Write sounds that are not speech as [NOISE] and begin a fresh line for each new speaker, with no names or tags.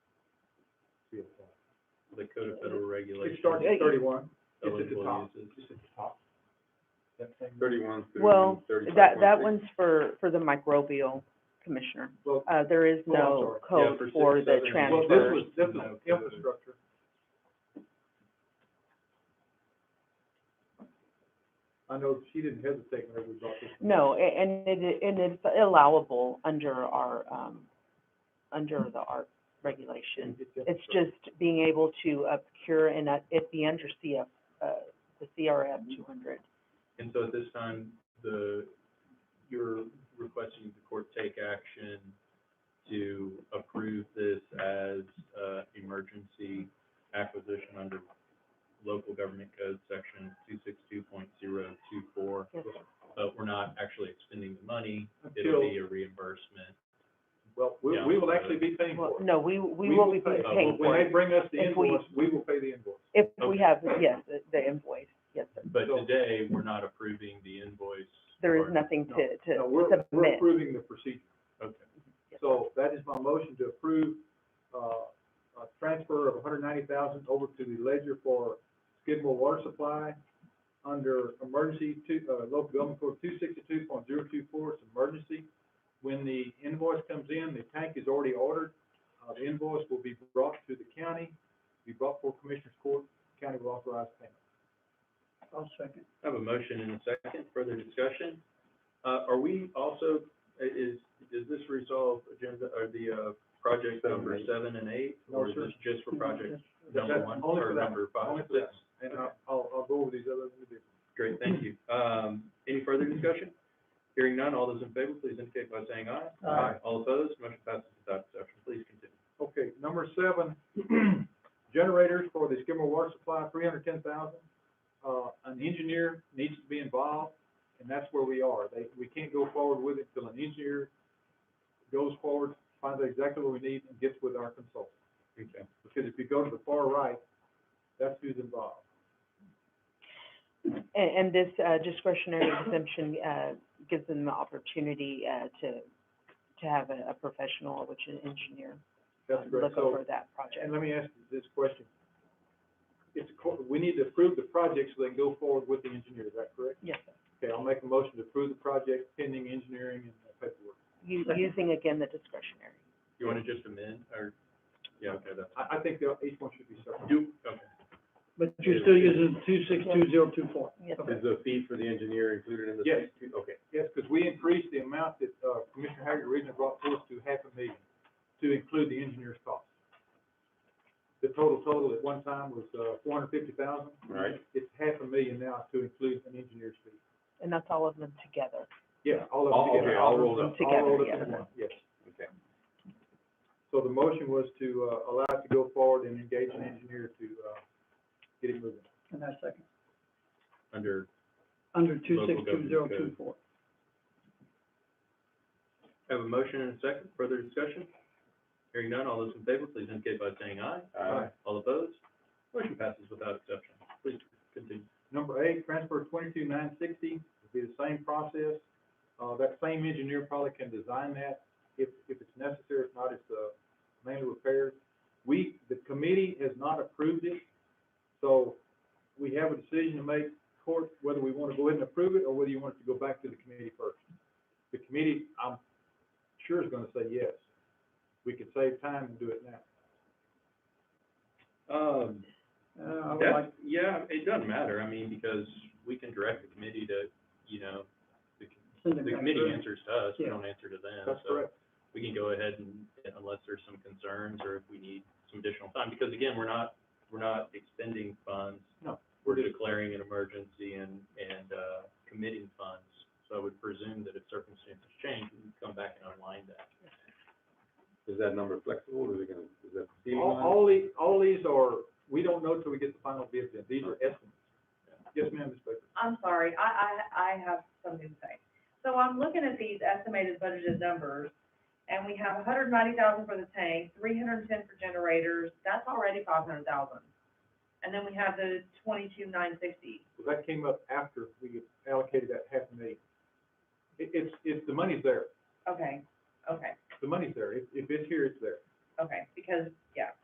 three o'clock.
the Code of Federal Regulations.
It starts at thirty-one,
of
it's at the top,
employees is
it's at the top. That thing.
Thirty-one
Well,
through thirty-five.
That, that one's for, for the microbial commissioner.
Well,
Uh, there is
Oh, I'm
no
sorry.
Yeah,
code
for six,
for the
seven, eight.
well, this
transfer.
was, this was infrastructure. I know she didn't hesitate whenever we brought this. up.
No, a- and it, and it's allowable under our, um, under the art regulation. It's just being able to uh, procure and uh, it be under CF, uh, the CRF two hundred.
And so at this time, the, you're requesting the court take action to approve this as, uh, emergency acquisition under local government code section two six two point zero two four.
Yes, sir.
But we're not actually expending the money, it'll
Until,
be uh, a reimbursement.
well, we, we will actually be paying
Well,
for it.
no, we, we will be
pay- Uh,
paying
Oh,
for
When
it
they bring us the
If we-
invoice, we will pay the invoice.
if we
okay.
have, yes, the- the invoice, yes, sir.
But
So-
today, we're not approving the invoice.
There is
or-
nothing
No,
to,
No,
to
we're, we're
submit.
approving the procedure.
Okay.
So that is my motion to approve, uh, a transfer of hundred ninety thousand over to the ledger for Skidmore Water Supply under emergency two, uh, local government code two sixty-two point zero two four, it's emergency. When the invoice comes in, the tank is already ordered, uh, the invoice will be brought to the county, be brought for commissioner's court, county will authorize payment. I'll second.
I have a motion and a second, further discussion. Uh, are we also, i- is, does this resolve agenda, or the, uh, project number seven and eight?
No,
Or is
sir.
this just for project number
That's
one,
only
or
for that,
number five,
only for
six?
that. And I'll, I'll, I'll go over these other,
Great, thank you. Um, any further discussion? Hearing none, all those in favor, please indicate by saying aye.
Aye.
All opposed, motion passes without exception, please continue.
Okay, number seven, [CLEARS THROAT] generators for the Skidmore water supply, three hundred ten thousand. Uh, an engineer needs to be involved, and that's where we are. They, we can't go forward with it till an engineer goes forward, finds out exactly what we need, and gets with our consultant.
Okay.
Because if you go to the far right, that's who's involved.
And, and this uh, discretionary exemption, uh, gives them the opportunity, uh, to, to have a, a professional, which is an engineer,
That's
um,
correct.
look
So,
over that
And
project.
let me ask you this question. It's, co- we need to approve the project so they can go forward with the engineer, is that correct?
Yes, sir.
Okay, I'll make a motion to approve the project pending engineering and uh, paperwork.
U-
Second.
using again the discretionary.
You want to just amend, or, yeah, okay, that's,
I, I think that each one should be separate.
you, okay.
But you're still using two six two zero two four.
Yes, sir.
Is
the fee for the engineer included in
the
Yes. Okay.
Yes, because we increased the amount that, uh, Commissioner Haggard originally brought forth to half a million to include the engineer's cost. The total total at one time was, uh, four hundred fifty thousand.
Right.
It's half a million now to include an engineer's fee.
And that's all of them together.
Yeah, all of
All-
them together.
okay, all rolled up.
All rolled
Together,
up in
yes.
one, yes.
Okay.
So the motion was to, uh, allow it to go forward and engage an engineer to, uh, get it moving.
And that's second,
Under
under two six
Local
two
government
zero
code.
two four.
Have a motion and a second, further discussion? Hearing none, all those in favor, please indicate by saying aye.
Aye.
All opposed? Motion passes without exception. Please continue.
Number eight, transfer twenty-two nine sixty, be the same process. Uh, that same engineer probably can design that if, if it's necessary, if not, it's, uh, mainly repairs. We, the committee has not approved it, so we have a decision to make, court, whether we want to go ahead and approve it or whether you want it to go back to the committee first. The committee, I'm sure is gonna say yes. We could save time and do it now.
Um,
Uh, I would like,
that, yeah, it doesn't matter, I mean, because we can direct the committee to, you know, the,
send it
the
back.
committee answers to us, we
Yeah.
don't answer to them.
That's
so
correct.
We can go ahead and, unless there's some concerns or if we need some additional time, because again, we're not, we're not expending funds.
No,
We're
just-
declaring an emergency and, and, uh, committing funds. So I would presume that if circumstances change, we can come back and unwind that.
Is that number flexible, or is it gonna, is that ceiling
All,
on it?
all the, all these are, we don't know till we get the final bid in, these are estimates. Yes, ma'am, Ms. Baker.
I'm sorry, I, I, I have something to say. So I'm looking at these estimated budgeted numbers, and we have hundred ninety thousand for the tank, three hundred and ten for generators, that's already five hundred thousand. And then we have the twenty-two nine sixty.
Well, that came up after we allocated that half a million. It, it's, it's, the money's there,
Okay, okay,
the money's there, if, if it's here, it's there.
okay, because, yeah,